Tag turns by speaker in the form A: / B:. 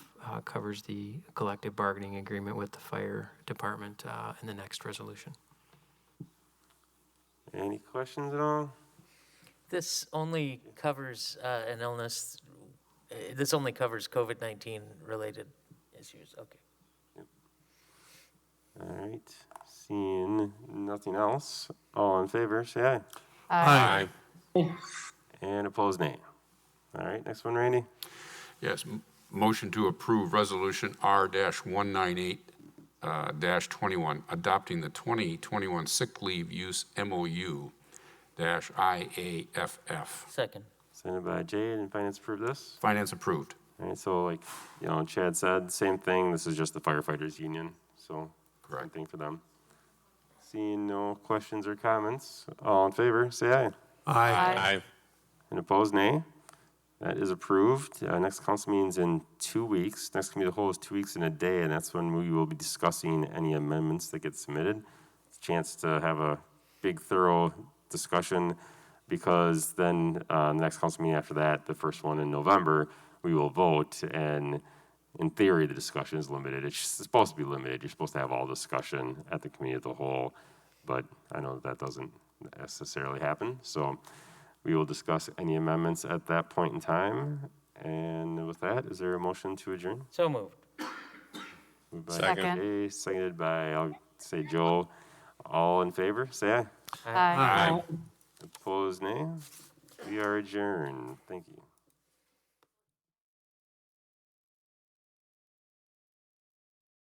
A: uh, covers the collective bargaining agreement with the fire department uh, in the next resolution.
B: Any questions at all?
C: This only covers uh, an illness, uh, this only covers COVID-19 related issues, okay.
B: All right, seeing nothing else, all in favor, say aye.
D: Aye.
B: And opposed, nay. All right, next one, Randy.
D: Yes, m- motion to approve Resolution R-198-21, uh, dash 21, adopting the 2021 sick leave use MOU dash IAFF.
C: Second,
B: Sent by Jade, and finance approved this.
D: Finance approved.
B: All right, so like, you know, Chad said, same thing, this is just the firefighters union, so. Same
D: Correct.
B: thing for them. Seeing no questions or comments, all in favor, say aye.
E: Aye.
B: And opposed, nay. That is approved. Uh, Next council meeting's in two weeks. Next committee of the whole is two weeks and a day, and that's when we will be discussing any amendments that get submitted. It's a Chance to have a big thorough discussion, because then, uh, next council meeting after that, the first one in November, we will vote, and in theory, the discussion is limited. It's supposed to be limited. You're supposed to have all discussion at the committee of the whole, but I know that doesn't necessarily happen, so we will discuss any amendments at that point in time. And with that, is there a motion to adjourn?
C: so moved.
B: Moved by
E: Second.
B: Jay, Seconded by, I'll say Joel. All in favor, say aye.
E: Aye.
B: Opposed, nay. We are adjourned. Thank you.